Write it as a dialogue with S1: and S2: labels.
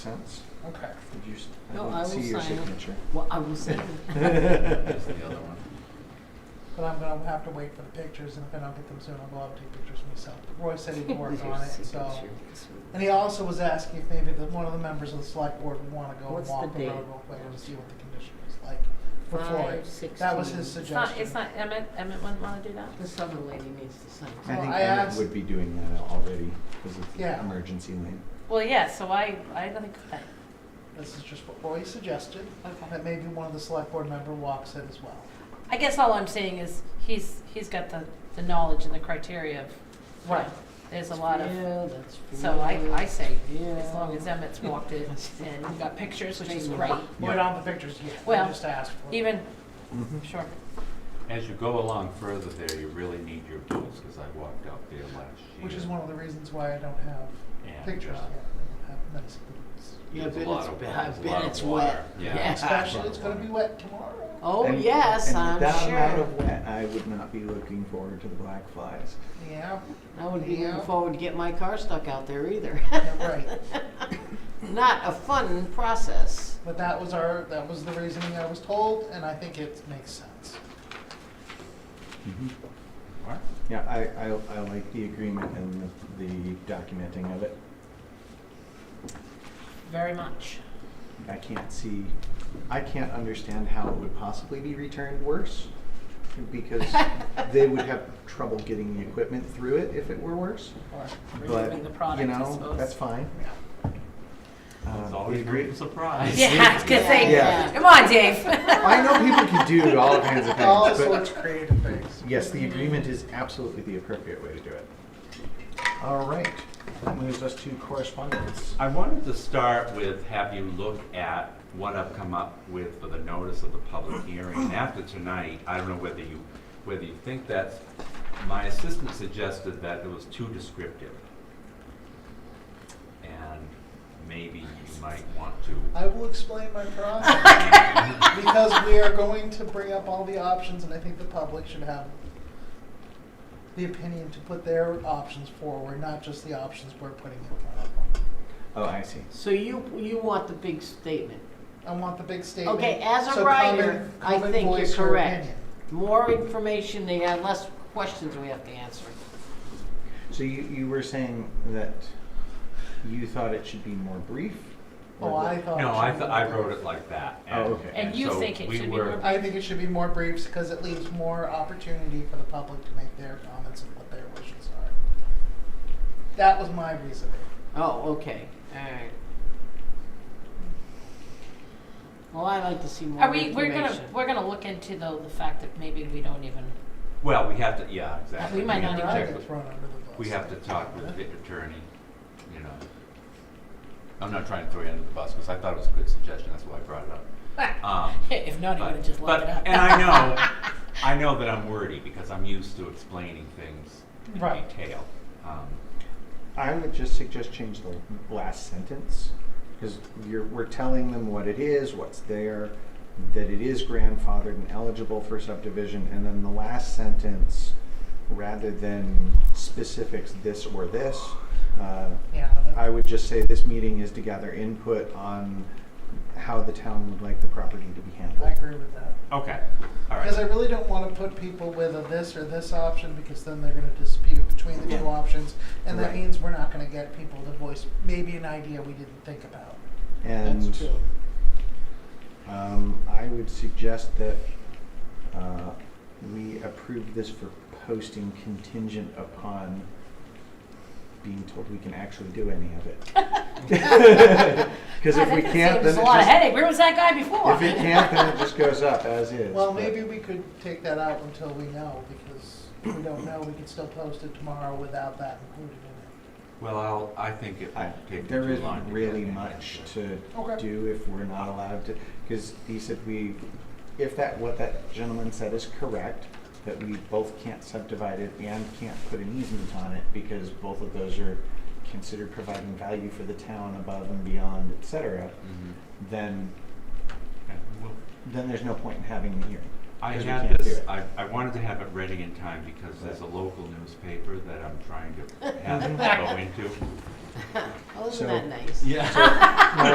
S1: sense.
S2: Okay.
S1: Did you, s- I
S3: No,
S1: don't
S3: I will
S1: see your
S3: sign it.
S1: signature.
S3: Well, I will say,
S4: That's the other one.
S2: But I'm gonna have to wait for the pictures, and if I don't get them soon, I'll go out and take pictures myself. Roy said he'd work on it, so. And he also was asking if maybe the, one of the members of the select board would wanna go and
S3: What's the
S2: walk the
S3: date?
S2: road real quick and see what the condition is like for Floyd.
S3: Five
S2: That was his
S3: sixteen.
S5: It's not, it's
S2: suggestion.
S5: not, Emmett, Emmett wouldn't wanna do that?
S3: The southern lady needs to sign.
S1: I
S2: Well,
S1: think
S2: I
S1: Emmett
S2: asked-
S1: would be doing that already because it's
S2: Yeah.
S1: emergency lane.
S5: Well, yeah, so I, I think, that-
S2: This is just what Roy suggested,
S5: okay.
S2: that maybe one of the select board member walks it as well.
S5: I guess all I'm saying is, he's, he's got the, the knowledge and the criteria of, Right. there's a lot of,
S3: Yeah, that's true.
S5: so I, I say, as
S3: Yeah.
S5: long as Emmett's walked it and we got pictures, which is
S3: Straight
S5: great.
S3: walk.
S2: We
S1: Yeah.
S2: don't have the pictures yet, we
S5: Well,
S2: just asked for it.
S5: Even,
S1: Mhm.
S5: sure,
S4: As you go along further there, you really need your tools, because I walked out there last year.
S2: Which is one of the reasons why I don't have
S4: and,
S2: pictures
S4: uh,
S2: yet, I don't have nice boots.
S3: Yeah, I
S4: there's a
S3: bet
S4: lot
S3: it's
S4: of-
S3: bad,
S4: there's
S3: I
S4: a
S3: bet
S4: lot of
S3: it's
S4: water.
S3: wet.
S4: Yeah.
S2: Especially, it's gonna be wet tomorrow.
S3: Oh,
S1: And-
S3: yes,
S1: and
S3: I'm
S1: that amount
S3: sure.
S1: of wet, I would not be looking forward to the black flies.
S2: Yeah,
S3: I wouldn't be
S2: Yeah.
S3: looking forward to get my car stuck out there either.
S2: yeah, right.
S3: Not a fun process.
S2: But that was our, that was the reasoning I was told, and I think it makes sense.
S1: Mhm.
S4: What?
S1: Yeah, I, I, I like the agreement and the, the documenting of it.
S5: very much.
S1: I can't see, I can't understand how it would possibly be returned worse because they would have trouble getting the equipment through it if it were worse.
S5: Or
S1: But,
S5: removing the
S1: you
S5: product, I
S1: know, that's
S5: suppose.
S1: fine.
S2: Yeah.
S1: Um,
S4: It's
S1: the
S4: always a
S1: agree-
S4: great surprise.
S5: Yeah, I was gonna say,
S3: Yeah.
S5: come on, Dave.
S1: I know people can do all kinds of
S2: All
S1: things,
S2: sorts
S1: but
S2: of creative things.
S1: yes, the agreement is absolutely the appropriate way to do it. All right, that moves us to correspondence.
S4: I wanted to start with have you look at what I've come up with for the notice of the public hearing. And after tonight, I don't know whether you, whether you think that's, my assistant suggested that it was too descriptive. And maybe you might want to,
S2: I will explain my process, because we are going to bring up all the options, and I think the public should have the opinion to put their options forward, not just the options we're putting in front of them.
S1: Oh, I see.
S3: So you, you want the big statement.
S2: I want the big statement.
S3: Okay, as a
S2: so come
S3: writer,
S2: and-
S3: I
S2: come and
S3: think you're
S2: voice your
S3: correct.
S2: opinion.
S3: More information, they have less questions we have to answer.
S1: So you, you were saying that you thought it should be more brief? or
S2: Oh, I
S1: that-
S2: thought.
S4: no,
S2: it
S4: I,
S2: should
S4: th-
S2: be
S4: I
S2: more
S4: wrote
S2: brief.
S4: it like that.
S1: Oh, okay.
S5: And you
S4: so
S5: think it
S4: we
S5: should be
S4: were-
S5: more
S2: I think it should be more briefs because it leaves more opportunity for the public to make their comments and what their wishes are. That was my reasoning.
S3: Oh, okay, alright. Well, I like to see more
S5: Are we, we're gonna,
S3: information.
S5: we're gonna look into though the fact that maybe we don't even,
S4: Well, we have to, yeah, exactly.
S5: We might not
S4: have to
S5: even-
S2: I
S4: check
S2: get
S4: with-
S2: thrown under the bus.
S4: We have to talk with the attorney, you know. I'm not trying to throw you under the bus, because I thought it was a good suggestion, that's why I brought it up. Um,
S5: if not, you
S4: but-
S5: would've just looked it
S4: but-
S5: up.
S4: And I know, I know that I'm wordy, because I'm used to explaining things in
S2: Right.
S4: detail. Um,
S1: I would just suggest change the last sentence, because you're, we're telling them what it is, what's there, that it is grandfathered and eligible for subdivision, and then the last sentence, rather than specifics this or this, uh,
S2: Yeah,
S1: I
S2: that-
S1: would just say this meeting is to gather input on how the town would like the property to be
S2: I
S1: handled.
S2: agree with that.
S4: Okay, all
S2: Because I
S4: right.
S2: really don't want to put people with a this or this option because then they're going to dispute between the two
S1: Yeah.
S2: options. And that
S1: Right.
S2: means we're not going to get people to voice maybe an idea we didn't think about.
S1: And
S3: That's true.
S1: Um, I would suggest that uh, we approve this for posting contingent upon being told we can actually do any of it. Because
S5: God,
S1: if
S5: that
S1: we
S5: just
S1: can't,
S5: saves
S1: then
S5: a lot of
S1: it
S5: headache. Where was that guy before?
S1: just, if it can't, then it just goes up as is.
S2: Well,
S1: but-
S2: maybe we could take that out until we know because if we don't know, we can still post it tomorrow without that included in it.
S4: Well, I'll, I think it
S1: I-
S4: would take me
S1: There
S4: too long to
S1: isn't
S4: get
S1: really
S4: an
S1: much
S4: answer.
S1: to
S2: Okay.
S1: do if we're not allowed to, because he said we, if that, what that gentleman said is correct, that we both can't subdivide it and can't put an easement on it, because both of those are considered providing value for the town above and beyond, et cetera,
S4: Mhm.
S1: then,
S4: Okay, well,
S1: then there's no point in having the hearing.
S4: I
S1: 'cause we
S4: had
S1: can't do
S4: this,
S1: it.
S4: I, I wanted to have it ready in time because there's a local newspaper that I'm trying to have it go into.
S3: Oh,
S1: So-
S3: isn't that nice?
S4: Yeah.